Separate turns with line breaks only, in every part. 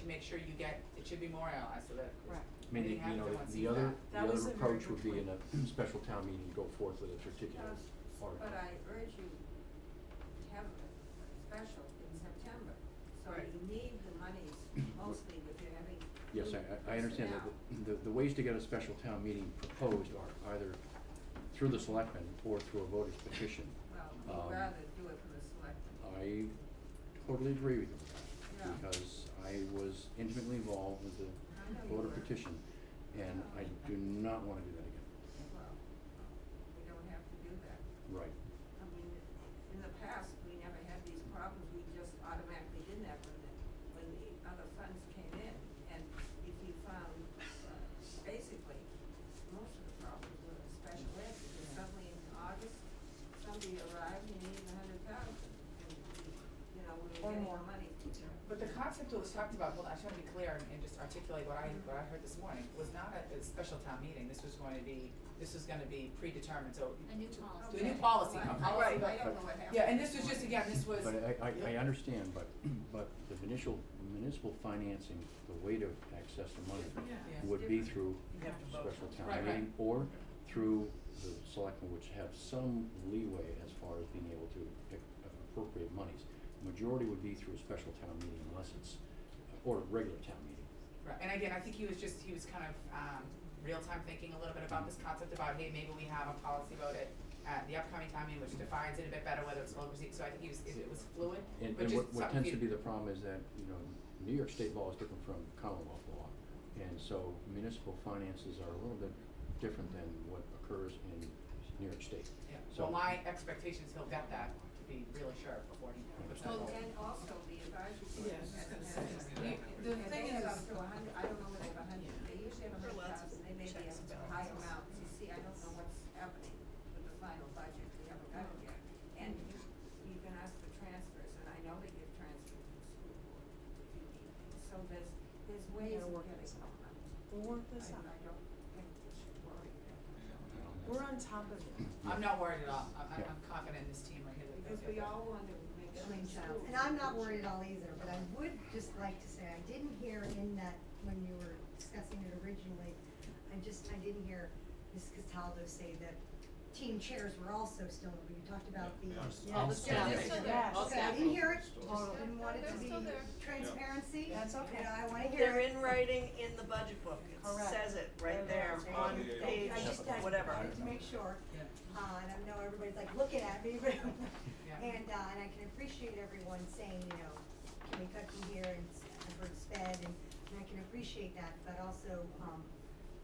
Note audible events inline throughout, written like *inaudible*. to make sure you get, it should be memorialized so that
Right.
I mean,
We
you
have
know,
to
the-
once
the
you
other,
back.
That
the
was
other
a very
approach
good
would be in
point.
a special town meeting, go forth with a particular
Yes,
article.
Uh, But I urge you to have a special in September, so
Right.
you need the
*clears throat*
monies mostly within every.
Yes, I, I- I understand that, the, the, the ways to get a special town meeting proposed are either through the selectmen or through a voter's petition.
Well,
Um,
we'd rather do it for the selectmen.
I totally agree with you,
Yeah.
because I was intimately involved with
I know
the
you
voter
were.
petition, and I do not wanna do that again.
Well, we don't have to do that.
Right.
I mean, in the past, we never had these problems, we just automatically did that when the, when the other funds came in. And if you found, uh, basically, most of the problems were in special ed, because suddenly in August, somebody arrived and needed a hundred thousand. And, you know,
Or
we were getting
more.
the money.
But the concept that was talked about, well, I just wanna be clear and, and just articulate what I, what I heard this morning, was not a, a special town meeting, this was going to be, this was gonna be predetermined, so.
A new
Do
policy.
a new policy, a
Well,
policy,
I- I
but-
don't know what happened.
Yeah, and this was just, again, this was,
But uh, I, I, I
Yeah.
understand, but, but the municipal, municipal financing, the way to access the money
Yeah.
would be through
You have to vote.
special
Right,
town
right.
meeting, or through the selectmen, which have some leeway as far as being able to pick appropriate monies. Majority would be through a special town meeting unless it's, or a regular town meeting.
Right, and again, I think he was just, he was kind of, um, real-time thinking a little bit about this concept about, hey, maybe we have a policy about it at the upcoming time, meeting, which defines it a bit better, whether it's local, so I think he was, it it was fluid,
And,
but
and
just
what, what
something
tends to
for
be
you-
the problem is that, you know, New York state law is different from Commonwealth law. And so municipal finances are a little bit different than what occurs in New York state.
Yeah,
So-
well, my expectations, he'll get that, to be really sure before he puts that
Well,
forward.
and also the advisory board
Yeah, I was just
has
gonna
an
say,
aspect.
you- the thing
And they have
is-
up to a hundred, I don't know what they have a hundred, they usually have a
There are
hundred
lots of
thousand, they may be
checks
up
and
to high
balances.
amounts, you see, I don't know what's happening with the final budget, we haven't got it yet. And you, you can ask for transfers, and I know they give transfers to the school board if you need, them. so there's, there's ways
gotta
of
work
getting
this out.
them.
We'll work this
I,
out.
I don't think we should worry about it.
We're on top of it.
I'm not worried at all, I'm, I'm
Yeah.
I'm confident in this team right here. that they'll
because
get
we
there.
all want to make sure.
And I'm not worried at all either, but I would just like to say, I didn't hear in that, when you were discussing it originally, I just, I didn't hear Ms. Cataldo say that team chairs were also still, when you talked about the.
All the staff.
they're still there. All
Okay, I
staff.
didn't hear it,
Totally.
just didn't want it to be transparency.
That's okay.
And I wanna hear
They're
it.
in writing in the budget book, it
Correct.
says it right there
They're
on
there.
page,
I just, I
whatever.
wanted to make sure,
Yeah.
uh, and I know everybody's like looking at me, *laughs* but,
Yeah.
and, uh, and I can appreciate everyone saying, you know, can we cut from here and s- I've heard sped, and, and I can appreciate that, but also, um,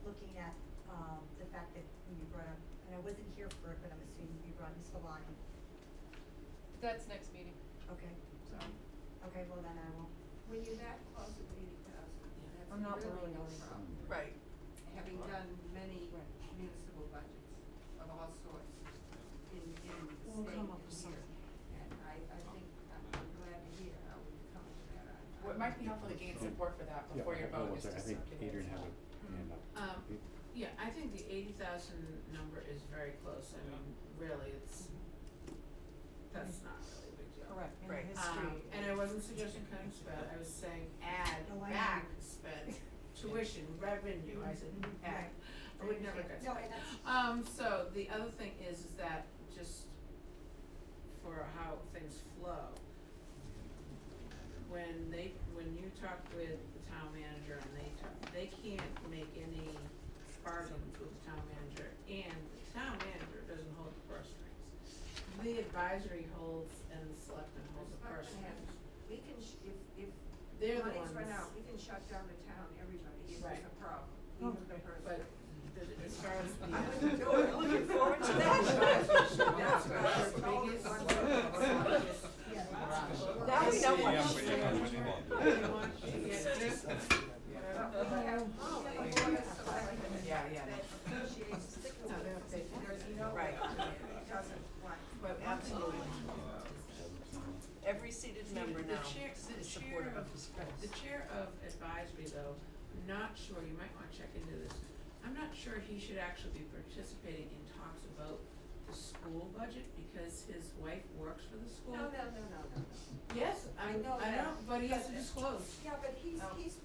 looking at, um, the fact that when you brought up, and I wasn't here for it, but I'm assuming you brought Ms. Valani,
That's next meeting.
okay,
So.
okay, well then I won't,
When you're that close to eighty thousand, that's
I'm not
really
worried
no
about it.
problem,
Right,
having done many
Right.
municipal budgets of all sorts in, in the state and here.
We'll come up with something.
And I, I think, I'm I'm glad to hear how we've come to that. I-
What
I-
might be helpful to gain support for that before your Hmm.
Yeah,
vote
hold on one
is to
second. I think
circulate
Adrian
it.
had a hand up.
Um, yeah, I think the eighty thousand number is very close, I mean, really, it's, that's not really a big deal.
Correct, in the
Right.
Um,
history.
and I wasn't suggesting cutting spend, I was saying add
*laughs*
No, I
back
know.
spend, tuition, revenue, I said add,
Right.
I would never cut spend.
no, and that's,
Um, so the other thing is, is that just for how things flow, when they, when you talk with the town manager and they talk, they can't make any bargains with the town manager, and the town manager doesn't hold the purse strings. The advisory holds and the selectman holds the purse strings.
We can, sh- if, if
They're the ones,
money's run out, we can shut down the town, everybody, if there's
Right.
a problem,
Oh,
even
okay.
the person.
but the- as far as the.
I wouldn't do it. Looking forward to that.
That's our
That's
biggest-
our biggest-
yeah.
Wow.
now we know
Yeah,
what
but
she's
you know
doing.
what you want.
They want you to get this,
But we
whatever.
Oh,
have, we have a
wait.
board of selectmen
Yeah, yeah,
that appreciates the
No, they don't say that.
There's no way
Right.
it doesn't want.
But
Absolutely.
Seventeen.
Every seated member
The
now
chair, the
is
chair
supportive
of,
of the schools.
the chair of advisory though, I'm not sure, you might wanna check into this. I'm not sure he should actually be participating in talks about the the school budget because his wife works for the school?
No, no, no, no, no, no.
Yes, I,
I know
I
that.
know, but he has to
But-
disclose.
Yeah, but he's,
Oh.
he's